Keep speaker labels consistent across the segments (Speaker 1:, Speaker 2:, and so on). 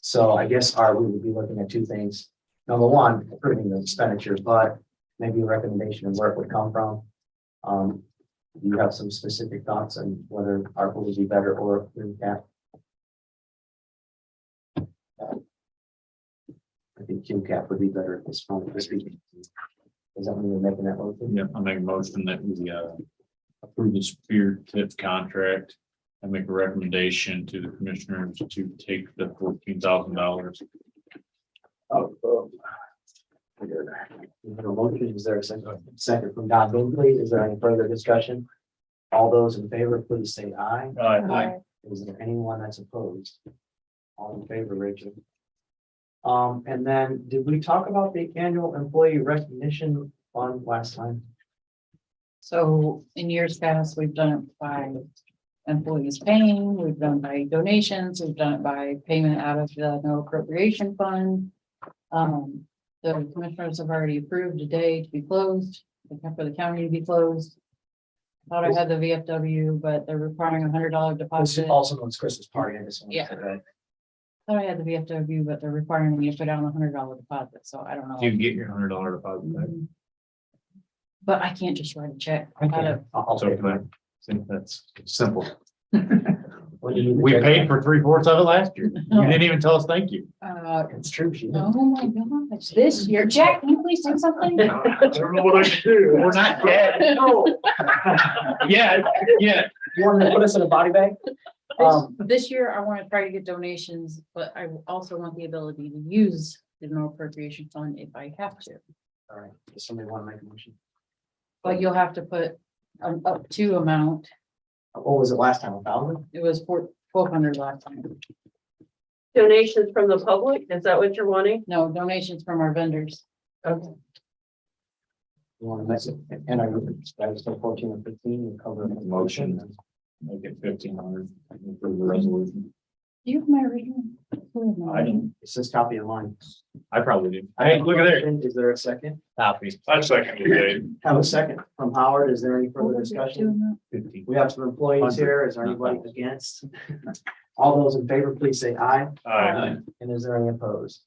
Speaker 1: So I guess our, we would be looking at two things. Number one, approving the expenditures, but maybe a recommendation of where it would come from. Um, do you have some specific thoughts on whether ARPA would be better or through cap? I think Jim Cap would be better at this point. this evening. Is that when you're making that motion?
Speaker 2: Yep, I make a motion that we uh approve the spear tip contract. I make a recommendation to the commissioners to take the fourteen thousand dollars.
Speaker 1: Oh, We have a motion. Is there a second, second from Don Bingley? Is there any further discussion? All those in favor, please say aye.
Speaker 2: Aye.
Speaker 1: Is there anyone that's opposed? All in favor, Rachel? Um, and then, did we talk about the annual employee recognition fund last time?
Speaker 3: So in years past, we've done it by employees paying, we've done by donations, we've done it by payment out of the no appropriation fund. Um, the commissioners have already approved today to be closed, the co- for the county to be closed. Thought I had the VFW, but they're requiring a hundred dollar
Speaker 1: This
Speaker 3: deposit.
Speaker 1: Oh, also known as Christmas party, I just wanted
Speaker 3: Yeah.
Speaker 1: to add.
Speaker 3: Thought I had the VFW, but they're requiring me to put down a hundred dollar deposit, so I don't
Speaker 2: You
Speaker 3: know. Mm.
Speaker 2: can get your hundred dollar deposit back.
Speaker 3: But I can't just write a check. I
Speaker 1: Okay,
Speaker 3: gotta-
Speaker 1: I'll- I'll
Speaker 2: So
Speaker 1: take
Speaker 2: can I
Speaker 1: mine.
Speaker 2: think that's simple.
Speaker 1: What do you-
Speaker 2: We paid for three fourths of it last year. You didn't even tell us thank you.
Speaker 3: Uh,
Speaker 1: It's true, she did.
Speaker 3: Oh my gosh, this year, Jack, can you please do something?
Speaker 2: I don't know what I can do. We're not dead.
Speaker 3: No.
Speaker 2: Yeah, yeah.
Speaker 1: Oh, You want to put us in a body bag?
Speaker 3: This-
Speaker 1: Um,
Speaker 3: This year, I want to try to get donations, but I also want the ability to use the no appropriation fund if I have to.
Speaker 1: all right, does somebody want to make a motion?
Speaker 3: But you'll have to put an up to amount.
Speaker 1: What was it last time, a thousand?
Speaker 3: It was four, twelve hundred last time.
Speaker 4: donations from the public? Is that what you're wanting?
Speaker 3: No donations from our vendors.
Speaker 4: Okay.
Speaker 1: You want to mess it, and I would, I was still fourteen or fifteen, you cover. the
Speaker 2: Motion. Make it fifteen hundred. Approve the resolution.
Speaker 3: Do you have my original?
Speaker 2: I didn't,
Speaker 1: It says copy of line.
Speaker 2: I probably didn't. Hey, look at there.
Speaker 1: Is there a second?
Speaker 2: Copy. I second it.
Speaker 1: Have a second from Howard. Is there any
Speaker 3: What
Speaker 1: further
Speaker 3: was it,
Speaker 1: discussion?
Speaker 3: $200?
Speaker 2: Fifteen.
Speaker 1: We have some employees here. Is there anybody against? All those in favor, please say aye.
Speaker 2: Aye.
Speaker 1: And is there any opposed?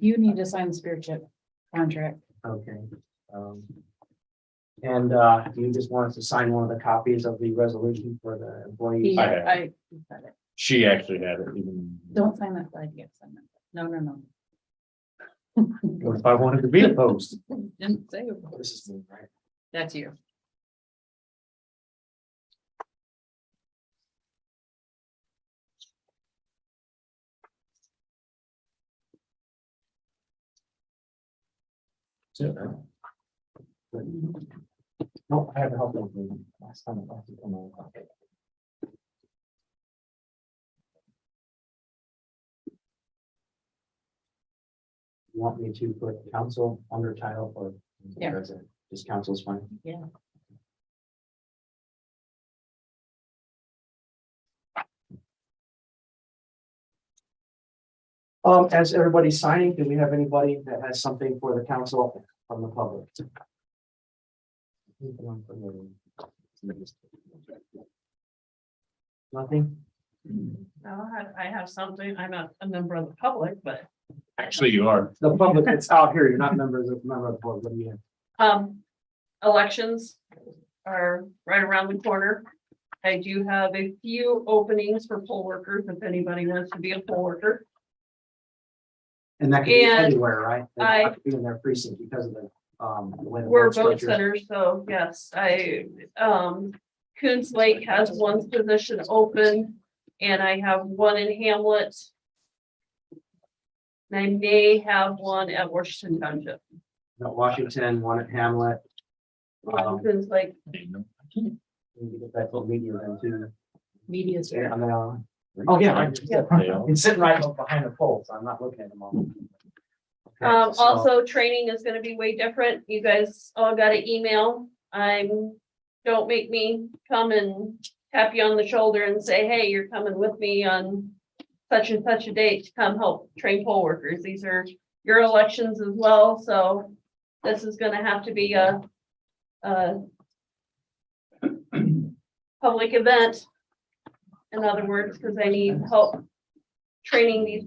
Speaker 3: You need to sign the spirit chip contract.
Speaker 1: Okay. um, And uh, you just want us to sign one of the copies of the resolution for the employees?
Speaker 3: He-
Speaker 2: I have.
Speaker 3: I, he said it.
Speaker 2: She actually had it. even-
Speaker 3: don't sign that flag yet. sign that. No, no, no.
Speaker 2: What if I wanted to be a post?
Speaker 3: Didn't say it.
Speaker 1: This is the right.
Speaker 3: That's you.
Speaker 1: No, I have a help. them. Last time I talked to them, I was like, You Want me to put council under title or?
Speaker 3: Yeah.
Speaker 1: President? Just council is fine.
Speaker 3: Yeah.
Speaker 1: Um, as everybody's signing, do we have anybody that has something for the council from the public? Nothing?
Speaker 4: No, I, I have something. I'm not a member of the public, but,
Speaker 2: Actually, you are.
Speaker 1: The public that's out here, you're not members of, member of the board, what do you have?
Speaker 4: um, elections are right around the corner. I do have a few openings for poll workers, if anybody wants to be a poll worker.
Speaker 1: And that could be
Speaker 4: And
Speaker 1: anywhere, right? They don't
Speaker 4: I-
Speaker 1: have to Be in their precinct because of the, um, the way. the
Speaker 4: We're
Speaker 1: board
Speaker 4: vote
Speaker 1: structure.
Speaker 4: centers, so yes, I, um, Coons Lake has one position open and I have one in Hamlet. And I may have one at Washington Township.
Speaker 1: Got Washington, one at Hamlet, Wow.
Speaker 4: Coons Lake
Speaker 1: we can get that to media then too.
Speaker 3: Media
Speaker 1: Is there-
Speaker 3: center.
Speaker 1: I'm gonna- Oh, yeah, right.
Speaker 2: They are.
Speaker 1: It's sitting right behind the polls, I'm not looking at them all. Okay,
Speaker 4: Um,
Speaker 1: so-
Speaker 4: also, training is gonna be way different. You guys all got an email. I'm, don't make me come and tap you on the shoulder and say, hey, you're coming with me on such and such a date to come help train poll workers. These are your elections as well, so this is gonna have to be a, a public event, in other words, because I need help training these